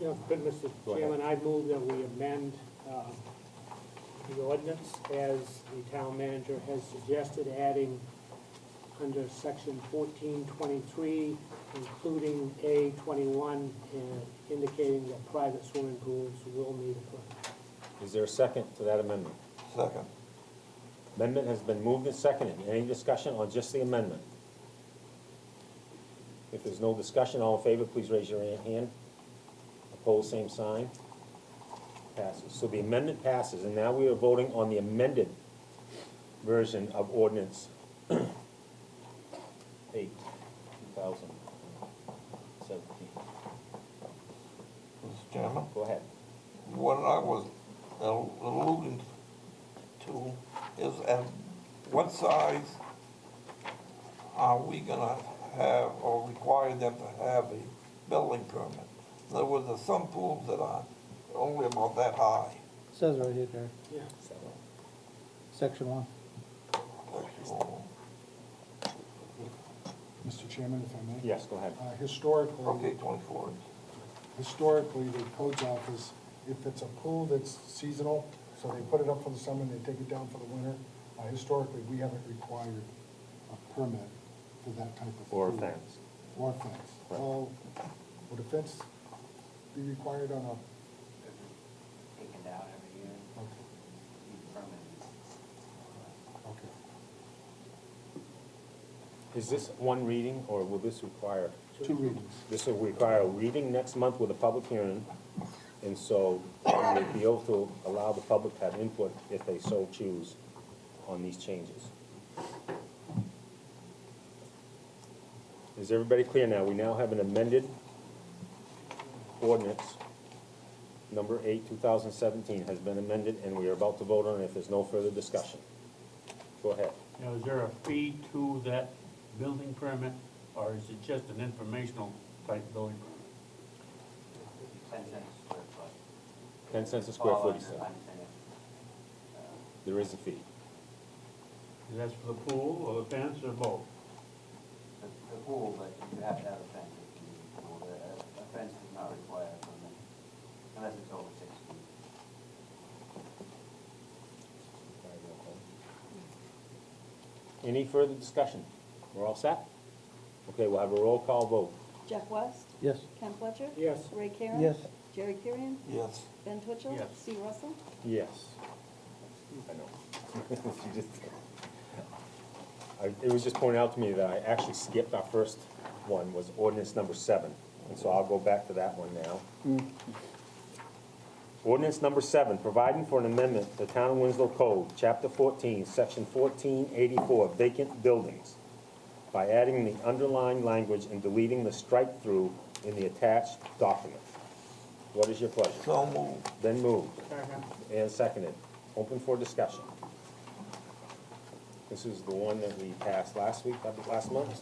Yeah, Good, Mr. Go ahead. Chairman, I move that we amend um, the ordinance as the town manager has suggested, adding under section fourteen twenty-three, including A twenty-one, and indicating that private swimming pools will need a permit. Is there a second to that amendment? Second. Amendment has been moved and seconded. Any discussion on just the amendment? If there's no discussion, all in favor, please raise your hand. Opposed, same sign. Passes. So the amendment passes, and now we are voting on the amended version of ordinance eight, two thousand seventeen. Mr. Chairman, Go ahead. what I was al- alluding to is at what size are we gonna have or require them to have a building permit? In other words, there's some pools that are only about that high. Says right here, Jerry, Yeah. section one. Mr. Chairman, if I may? Yes, go ahead. Uh, Historically, Okay, twenty-four. historically, the codes office, if it's a pool that's seasonal, so they put it up for the summer and they take it down for the winter, uh, historically, we haven't required a permit for that type of. Or a pool. fence. Or a fence. Right. Well, would a fence be required on taken down every year, a, okay, permanent. okay. Is this one reading, or will this require? Two readings. This will require a reading next month with a public hearing, and so we'll be able to allow the public to have input if they so choose on these changes. Is everybody clear now? We now have an amended ordinance, number eight, two thousand seventeen, has been amended, and we are about to vote on it if there's no further discussion. Go ahead. Now, is there a fee to that building permit, or is it just an informational type building Ten permit? cents a square foot. Ten cents a square All foot, on he said. the- on the tenant. Uh, There is a fee. Is that for the pool, or the fence, or both? The, the pool, but you have to have a fence if you, use the pool. The- a fence does not require a permit, unless it's over six feet. Any further discussion? We're all set? Okay, we'll have a roll call vote. Jeff West, Yes. Ken Fletcher. Yes. Ray Karen. Yes. Jerry Kurian, Yes, Ben Twitchell. Yes. Steve Russell. Yes. I know. You just- I- It was just pointed out to me that I actually skipped our first one, was ordinance number seven, and so I'll go back to that one now. Mm-hmm. Ordinance number seven, providing for an amendment to the Town of Winslow Code, Chapter fourteen, Section fourteen eighty-four, vacant buildings, by adding the underlying language and deleting the strike-through in the attached document. What is your pleasure? so moved. Then moved. And seconded. Open for discussion. This is the one that we passed last week, I think, last month.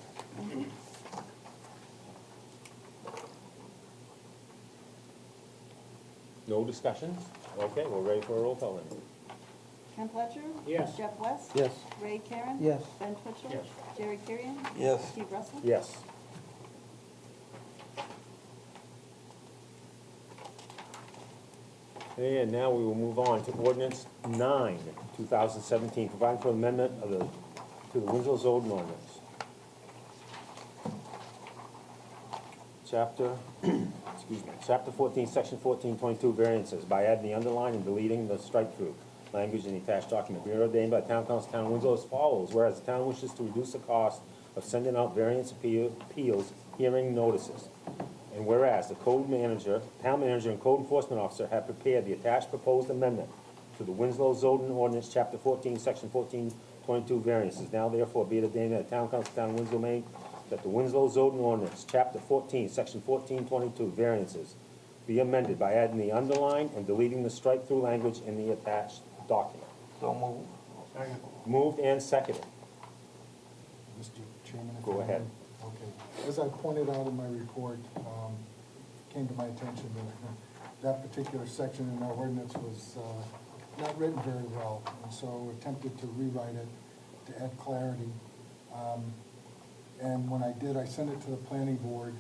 No discussions? Okay, we're ready for a roll call then. Ken Fletcher. Yes. Jeff West. Yes. Ray Karen. Yes. Ben Twitchell. Yes. Jerry Kurian. Yes. Steve Russell. Yes. And now we will move on to ordinance nine, two thousand seventeen, providing for amendment of the, to the Winslow zoning ordinance. Chapter, excuse me, chapter fourteen, section fourteen twenty-two variances by adding the underline and deleting the strike-through language in the attached document. Be ordained by Town Council, Town of Winslow as follows, whereas the town wishes to reduce the cost of sending out variance appeal- appeals, hearing notices. And whereas the code manager, town manager and code enforcement officer have prepared the attached proposed amendment to the Winslow zoning ordinance, chapter fourteen, section fourteen twenty-two variances. Now therefore be it ordained that the Town Council, Town of Winslow, Maine, that the Winslow zoning ordinance, chapter fourteen, section fourteen twenty-two variances be amended by adding the underline and deleting the strike-through language in the attached document. So moved. Second. Moved and seconded. Mr. Chairman? if Go I may. ahead. Okay. As I pointed out in my report, um, came to my attention that that particular section in our ordinance was uh, not written very well, and so attempted to rewrite it to add clarity. Um, And when I did, I sent it to the planning board,